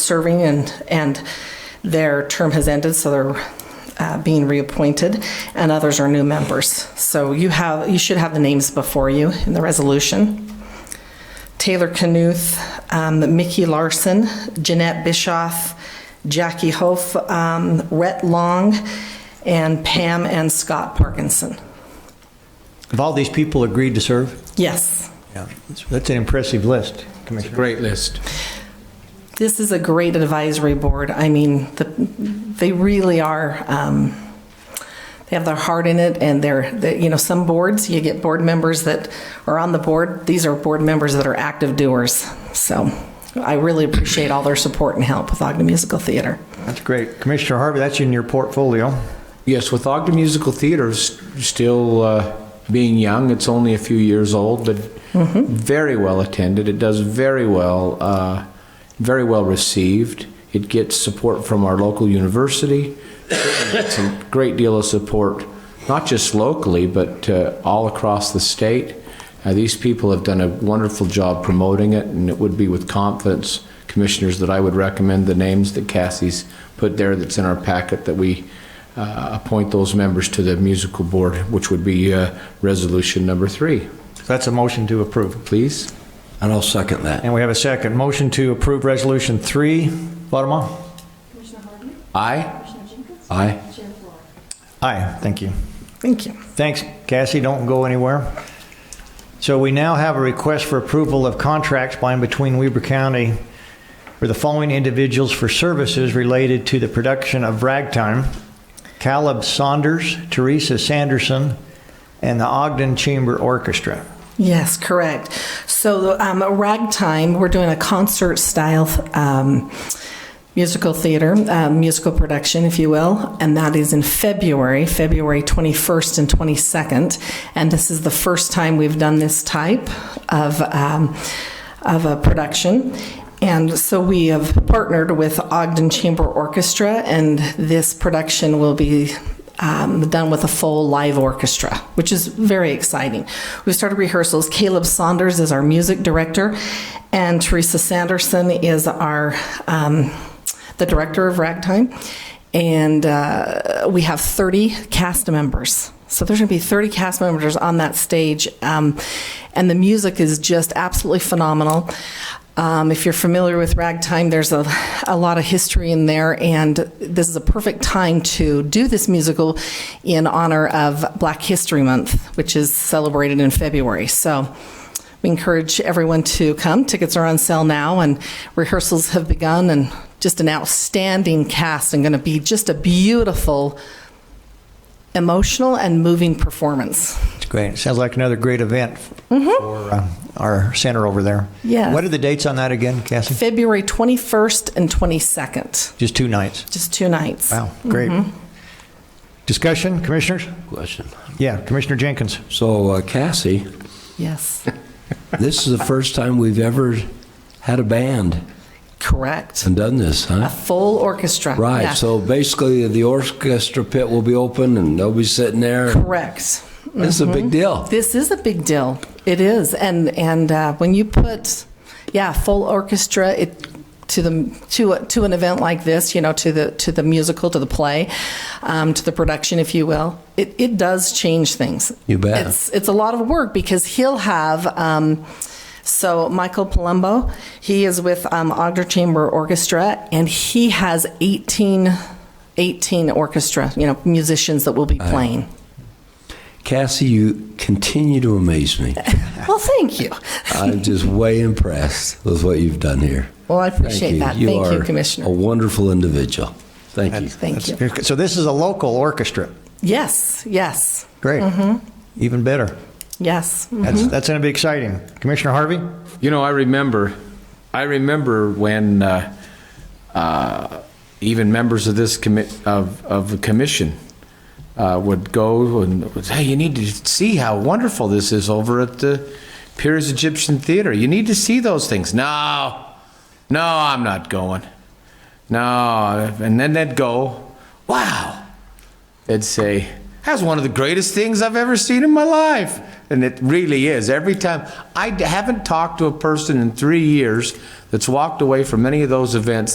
serving and, and their term has ended, so they're uh, being reappointed, and others are new members. So you have, you should have the names before you in the resolution. Taylor Knuth, um, Mickey Larson, Jeanette Bischoff, Jackie Hof, um, Rhett Long, and Pam and Scott Parkinson. Have all these people agreed to serve? Yes, Yeah. That's an impressive list, Commissioner. Great list. this is a great advisory board. I mean, the, they really are. Um, they have their heart in it, and they're, they, you know, some boards you get board members that are on the board. These are board members that are active doers. So, I really appreciate all their support and help with Ogden Musical Theater. That's great. Commissioner Harvey, that's in your portfolio. Yes, with Ogden Musical Theater s- still uh, being young, it's only a few years old, but very well attended. It does very well, uh, very well received. It gets support from our local university. It's a great deal of support, not just locally, but uh, all across the state. Uh, these people have done a wonderful job promoting it, and it would be with confidence, commissioners, that I would recommend the names that Cassie's put there that's in our packet that we uh, appoint those members to the musical board, which would be uh, resolution number three. That's a motion to approve. Please? And I'll second that. And we have a second. Motion to approve Resolution 3. Bottom Commissioner Harden? Aye? Commissioner Jenkins? Aye. Chair Flora? Aye, thank you. Thank you. Thanks, Cassie, don't go anywhere. So we now have a request for approval of contracts by and between Weber County for the following individuals for services related to the production of Ragtime. Caleb Saunders, Teresa Sanderson, and the Ogden Chamber Orchestra. Yes, correct. So, um, Ragtime, we're doing a concert style um, musical theater, uh, musical production, if you will, and that is in February, February 21st and 22nd. And this is the first time we've done this type of, um, of a production. And so we have partnered with Ogden Chamber Orchestra, and this production will be um, done with a full live orchestra, which is very exciting. We started rehearsals. Caleb Saunders is our music director, and Teresa Sanderson is our um, the director of Ragtime. And uh, we have 30 cast members. So there's going to be 30 cast members on that stage. Um, and the music is just absolutely phenomenal. Um, if you're familiar with ragtime, there's a, a lot of history in there, and this is a perfect time to do this musical in honor of Black History Month, which is celebrated in February. So we encourage everyone to come. Tickets are on sale now, and rehearsals have begun, and just an outstanding cast and going to be just a beautiful, emotional, and moving performance. It's great. Sounds like another great event for uh, our center over there. Yes. What are the dates on that again, Cassie? February 21st and 22nd, Just two nights. just two nights. Wow, great. Discussion, commissioners? Question. Yeah, Commissioner Jenkins. So uh, Cassie, Yes, this is the first time we've ever had a band correct. and done this, A huh? full orchestra. Yeah. Right, so basically the orchestra pit will be open and they'll be sitting there. Correct. This is a big deal. This is a big deal. It is, and and uh, when you put, yeah, full orchestra it to the to a, to an event like this, you know, to the to the musical, to the play, um, to the production, if you will, it, it does change things. You bet. It's it's a lot of work because he'll have. Um, so Michael Palumbo, he is with um, Ogden Chamber Orchestra, and he has 18, 18 orchestra, you know, musicians that will be playing. Cassie, you continue to amaze me. Well, thank you. I'm just way impressed with what you've done here. Well, I Thank appreciate you. that. Thank you, are Commissioner. a wonderful individual. Thank you. Thank you. So this is a local orchestra. Yes, yes, Great. Mm-hmm. Even better. yes. That's, that's going to be exciting. Commissioner Harvey? You know, I remember, I remember when uh, uh, even members of this commit of of the commission uh, would go and would say, "Hey, you need to see how wonderful this is over at the Piers Egyptian Theater. You need to see those things." No, no, I'm not going. No, and then they'd go, "Wow." They'd say, That's one of the greatest things I've ever seen in my life. And it really is. Every time, I haven't talked to a person in three years that's walked away from any of those events